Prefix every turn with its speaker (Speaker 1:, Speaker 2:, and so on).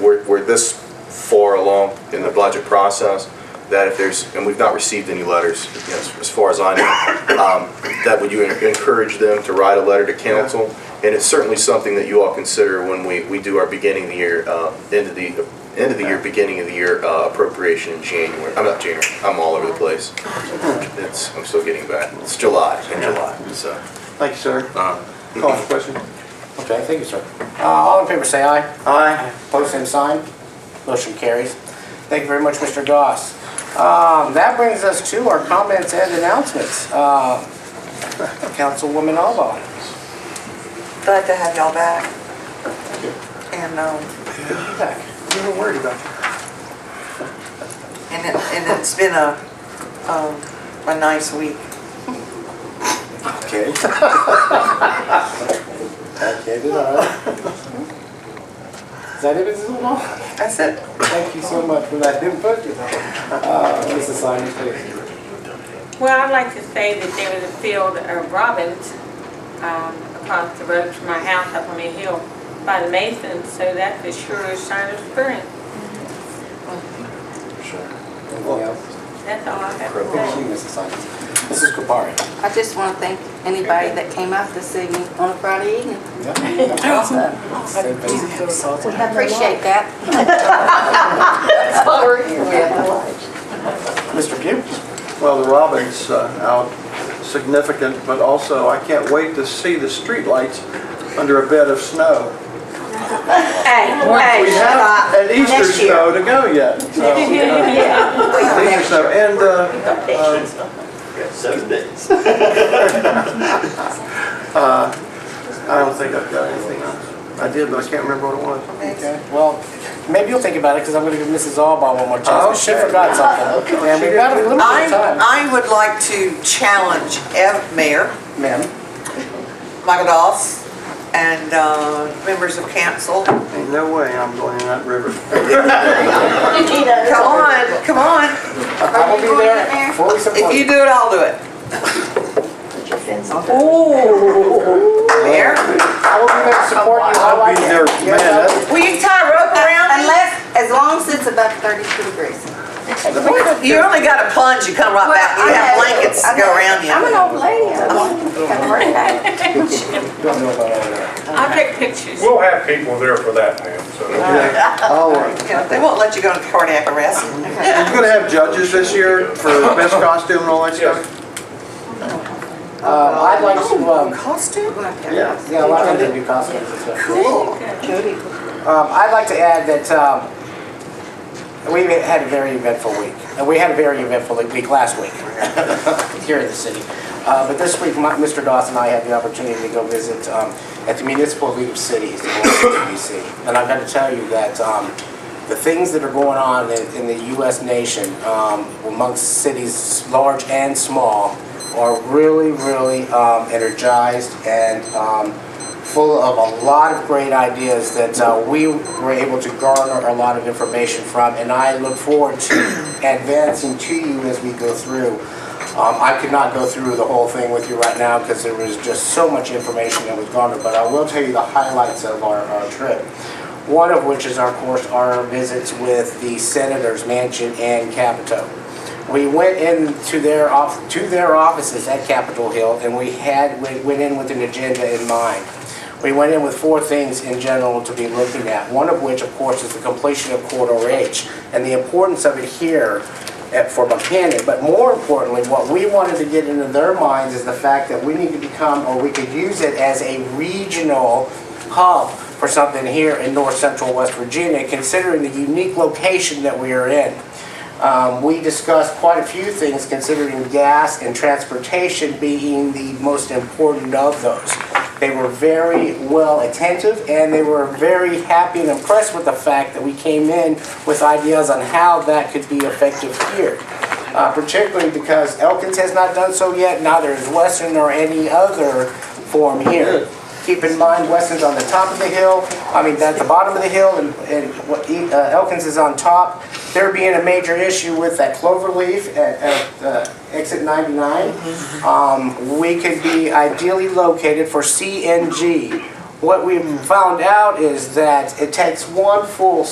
Speaker 1: we're, we're this far along in the budget process that if there's, and we've not received any letters, you know, as- as far as I know, um, that would you en- encourage them to write a letter to council? And it's certainly something that you all consider when we, we do our beginning of the year, uh, end of the, end of the year, beginning of the year uh, appropriation in January. I'm not January, I'm all over the place. It's, I'm still getting back. It's July, in July, so.
Speaker 2: Thank you, sir.
Speaker 1: uh,
Speaker 2: Call for question?
Speaker 3: Okay, thank you, sir. Uh, All in favor, say aye. Aye. Post same sign. Motion carries. Thank you very much, Mr. Goss. Um, That brings us to our comments and announcements. Uh, Councilwoman Alba.
Speaker 4: Glad to have y'all back. And, um,
Speaker 2: You were worried about it.
Speaker 4: and it, and it's been a, um, a nice week.
Speaker 3: Okay. Okay, did I? Is that it, Mrs. Alba?
Speaker 4: That's it.
Speaker 3: Thank you so much for that input. Uh, Mrs. Simon, please.
Speaker 5: Well, I'd like to say that there was a field of robins um, across the road from my house up on a hill by the Masons, so that's a sure sign of spring.
Speaker 3: Anything else?
Speaker 5: That's all I have to
Speaker 3: Thank
Speaker 5: say.
Speaker 3: you, Mrs. Simon. Mrs. Kupari.
Speaker 6: I just want to thank anybody that came out to see me on a Friday evening. I Appreciate that.
Speaker 3: Mr. Pugh?
Speaker 2: Well, the robin's uh, out significant, but also I can't wait to see the streetlights under a bed of snow.
Speaker 4: Hey, hey, Uh,
Speaker 2: We have an Easter snow to go yet. so, uh, Easter snow, and uh,
Speaker 7: Seven days.
Speaker 2: I don't think I've got anything else. I did, but I can't remember what it was.
Speaker 3: Okay, well, maybe you'll think about it, because I'm gonna give Mrs. Alba one more chance, she
Speaker 2: Okay.
Speaker 3: forgot something. And we've got a little bit of time.
Speaker 4: I, I would like to challenge Ev, Mayor
Speaker 3: Ma'am,
Speaker 4: Michael Doss and, uh, members of council. Come
Speaker 2: Ain't no way I'm going in that river.
Speaker 4: on, come on.
Speaker 3: I will be there fully
Speaker 4: If you
Speaker 3: supported.
Speaker 4: do it, I'll do it. Ooh. Mayor,
Speaker 3: I will be there to support you, I
Speaker 2: I'll
Speaker 3: like
Speaker 2: be there,
Speaker 3: it.
Speaker 2: man, that's
Speaker 4: will you tie a rope around me?
Speaker 6: Unless, as long as it's above 32 degrees.
Speaker 4: You only got a plunge, you come right back, you have blankets to go around you.
Speaker 6: I'm an old lady. I have a birthday.
Speaker 3: Don't know about all that.
Speaker 5: I'll take pictures.
Speaker 8: We'll have people there for that, ma'am, so.
Speaker 2: all right.
Speaker 4: Yeah, They won't let you go into cardiac arrest.
Speaker 2: You're gonna have judges this year for best costume and all that stuff?
Speaker 3: Um, I'd like to, um,
Speaker 4: Costume?
Speaker 2: Yeah.
Speaker 3: yeah, a lot of them do costumes and stuff.
Speaker 4: Cool.
Speaker 3: Um, I'd like to add that, um, we had a very eventful week. And we had a very eventful week last week here in the city. Uh, but this week, my- Mr. Dawson and I had the opportunity to go visit, um, at the Municipal League of Cities in Washington DC. And I've got to tell you that, um, the things that are going on in, in the US nation, um, amongst cities large and small are really, really, um, energized and, um, full of a lot of great ideas that uh, we were able to garner a lot of information from, and I look forward to advancing to you as we go through. Um, I could not go through the whole thing with you right now because there was just so much information that was garnered, but I will tell you the highlights of our, our trip. One of which is, of course, our visits with the Senator's Mansion and Capitol. We went into their off, to their offices at Capitol Hill, and we had, we went in with an agenda in mind. We went in with four things in general to be looking at, one of which, of course, is the completion of Corridor H and the importance of it here at, for Buchanan. But more importantly, what we wanted to get into their minds is the fact that we need to become, or we could use it as a regional hub for something here in north central West Virginia, considering the unique location that we are in. Um, we discussed quite a few things considering gas and transportation being the most important of those. They were very well attentive and they were very happy and impressed with the fact that we came in with ideas on how that could be effective here. Uh, particularly because Elkins has not done so yet, neither is Western or any other form here. Keep in mind, Weston's on the top of the hill, I mean, at the bottom of the hill, and, and what E- uh, Elkins is on top. There being a major issue with that clover leaf at, at uh, exit 99, um, we could be ideally located for CNG. What we found out is that it takes one full